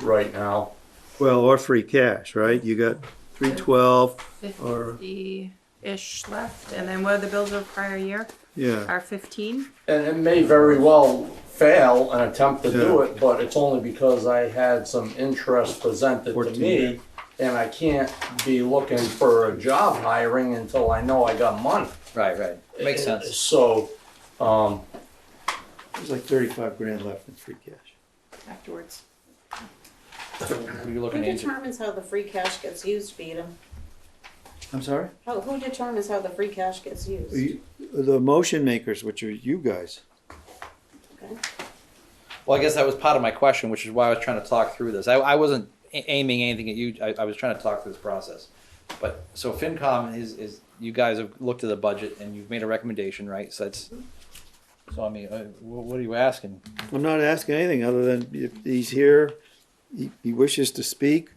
right now. Well, or free cash, right? You got three twelve or, fifty-ish left, and then what are the bills of prior year? yeah, Are fifteen? And it may very well fail an attempt to do Yeah. it, but it's only because I had some interest presented to 14. me. And I can't be looking for a job hiring until I know I got money. Right, right. Makes sense. So, um, there's like thirty-five grand left in free cash. Afterwards. Were you Who looking into? determines how the free cash gets used, Beadham? I'm sorry? How, who determines how the free cash gets used? You- The motion makers, which are you guys. Well, I guess that was part of my question, which is why I was trying to talk through this. I, I wasn't a- aiming anything at you. I, I was trying to talk through this process. But so FinCom is, is you guys have looked at the budget and you've made a recommendation, right? So that's. So I mean, uh, wh- what are you asking? I'm not asking anything other than if he's here, he, he wishes to speak.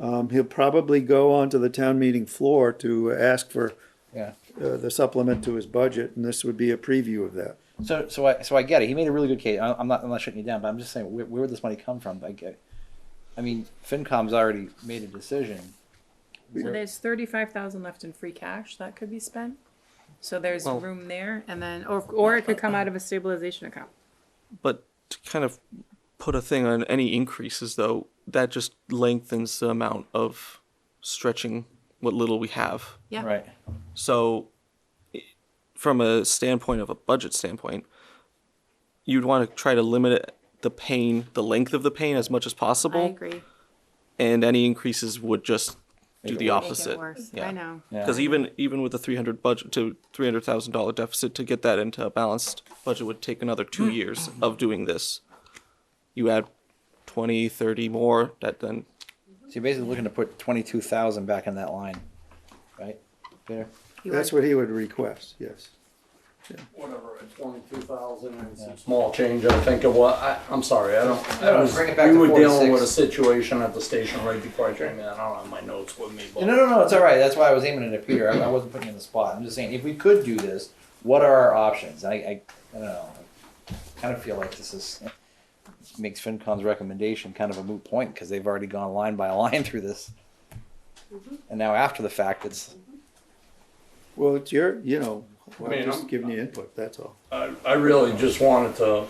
Um, he'll probably go onto the town meeting floor to ask for Yeah. uh, the supplement to his budget, and this would be a preview of that. So so I so I get it. He made a really good case. I, I'm not I'm not shutting you down, but I'm just saying where, where would this money come from? I get. I mean, FinCom's already made a decision. So there's thirty-five thousand left in free cash that could be spent. So there's Well- room there, and then, or, or it could come out of a stabilization account. but to kind of put a thing on any increases though that just lengthens the amount of stretching what little we have Yeah. Right. so i- from a standpoint of a budget standpoint you'd want to try to limit it- the pain the length of the pain as much as I possible agree. and any increases would just do the Make opposite it worse. Yeah. I know. Yeah. because even even with the 300 budget to 300 thousand dollar deficit to get that into a balanced budget would take another two years of doing this you add 20 30 more that then So you're basically looking to put twenty-two thousand back in that line, right? Peter? You That's are- what he would request, yes. whatever, twenty-two thousand and some small change, I think of what, I, I'm sorry, I don't. I was- bring it back We to were dealing 46. with a situation at the station right before I came in, I don't have my notes with me, No, but. no, no, no, it's all right. That's why I was aiming it at Peter. I, I wasn't putting you in the spot. I'm just saying, if we could do this, what are our options? I, I, I don't know. I kind of feel like this is makes FinCom's recommendation kind of a moot point because they've already gone line by line through this, and now after the fact, it's Well, it's your, you know, mean, I'm just I'm- giving you input, that's all. I, I really just wanted to,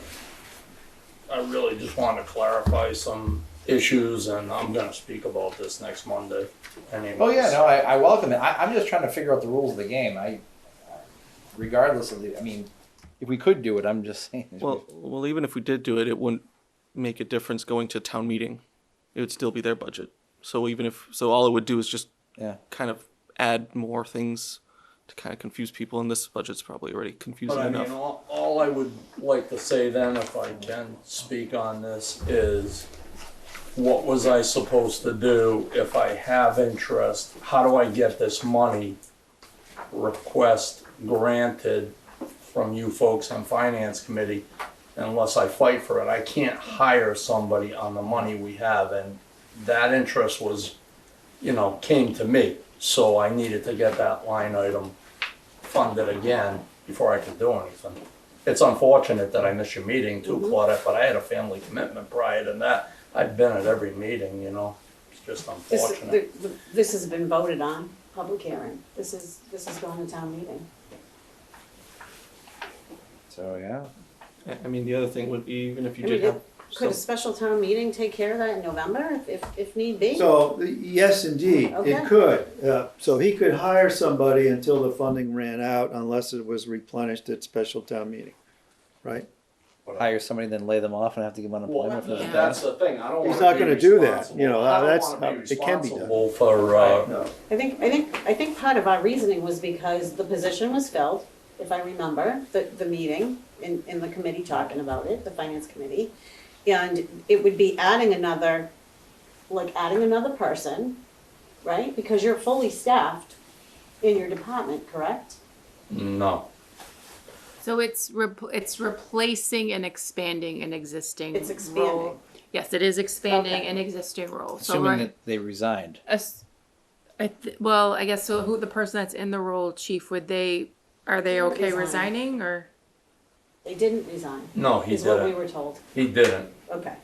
I really just wanted to clarify some issues and I'm gonna speak about this next Monday anyways. Oh yeah, no, I, I welcome it. I, I'm just trying to figure out the rules of the game. I, regardless of the, I mean, if we could do it, I'm just saying. well well even if we did do it it wouldn't make a difference going to town meeting it would still be their budget so even if so all it would do is just yeah, kind of add more things to kind of confuse people and this budget's probably already confusing But I enough mean, all, all I would like to say then, if I can speak on this, is what was I supposed to do if I have interest? How do I get this money request granted from you folks on finance committee unless I fight for it? I can't hire somebody on the money we have and that interest was, you know, came to me. So I needed to get that line item funded again before I could do anything. It's unfortunate that I missed your meeting Mm-hmm. too, Claudette, but I had a family commitment prior to that. I've been at every meeting, you know, it's just This, unfortunate. the- the- this has been voted on, public hearing. This is, this is going to town meeting. so yeah. I- I mean the other thing would be even if you I did mean, have it- Could a some- special town meeting take care of that in November if, if, if need be? So, yes, indeed, it Okay. could. Uh, So he could hire somebody until the funding ran out unless it was replenished at special town meeting, right? hire somebody, then lay them off and have to give Well, unemployment that- for the Yeah. that's the thing, I don't He's wanna not be gonna do that, responsible. you know, I don't that's wanna be how- it can be done. responsible For, uh, No. I think, I think, I think part of our reasoning was because the position was filled, if I remember, the, the meeting in, in the committee talking about it, the finance committee. And it would be adding another, like adding another person, right? Because you're fully staffed in your department, correct? no, So it's repl it's replacing and expanding an existing. It's expanding. role. Yes, it is expanding Okay. an existing role. So assuming we're- that they resigned. As, I th- well, I guess so. Who the person that's in the role, chief? Would they are they okay Resign. resigning or? They didn't resign, no, he is what we didn't, were told. he didn't. Okay,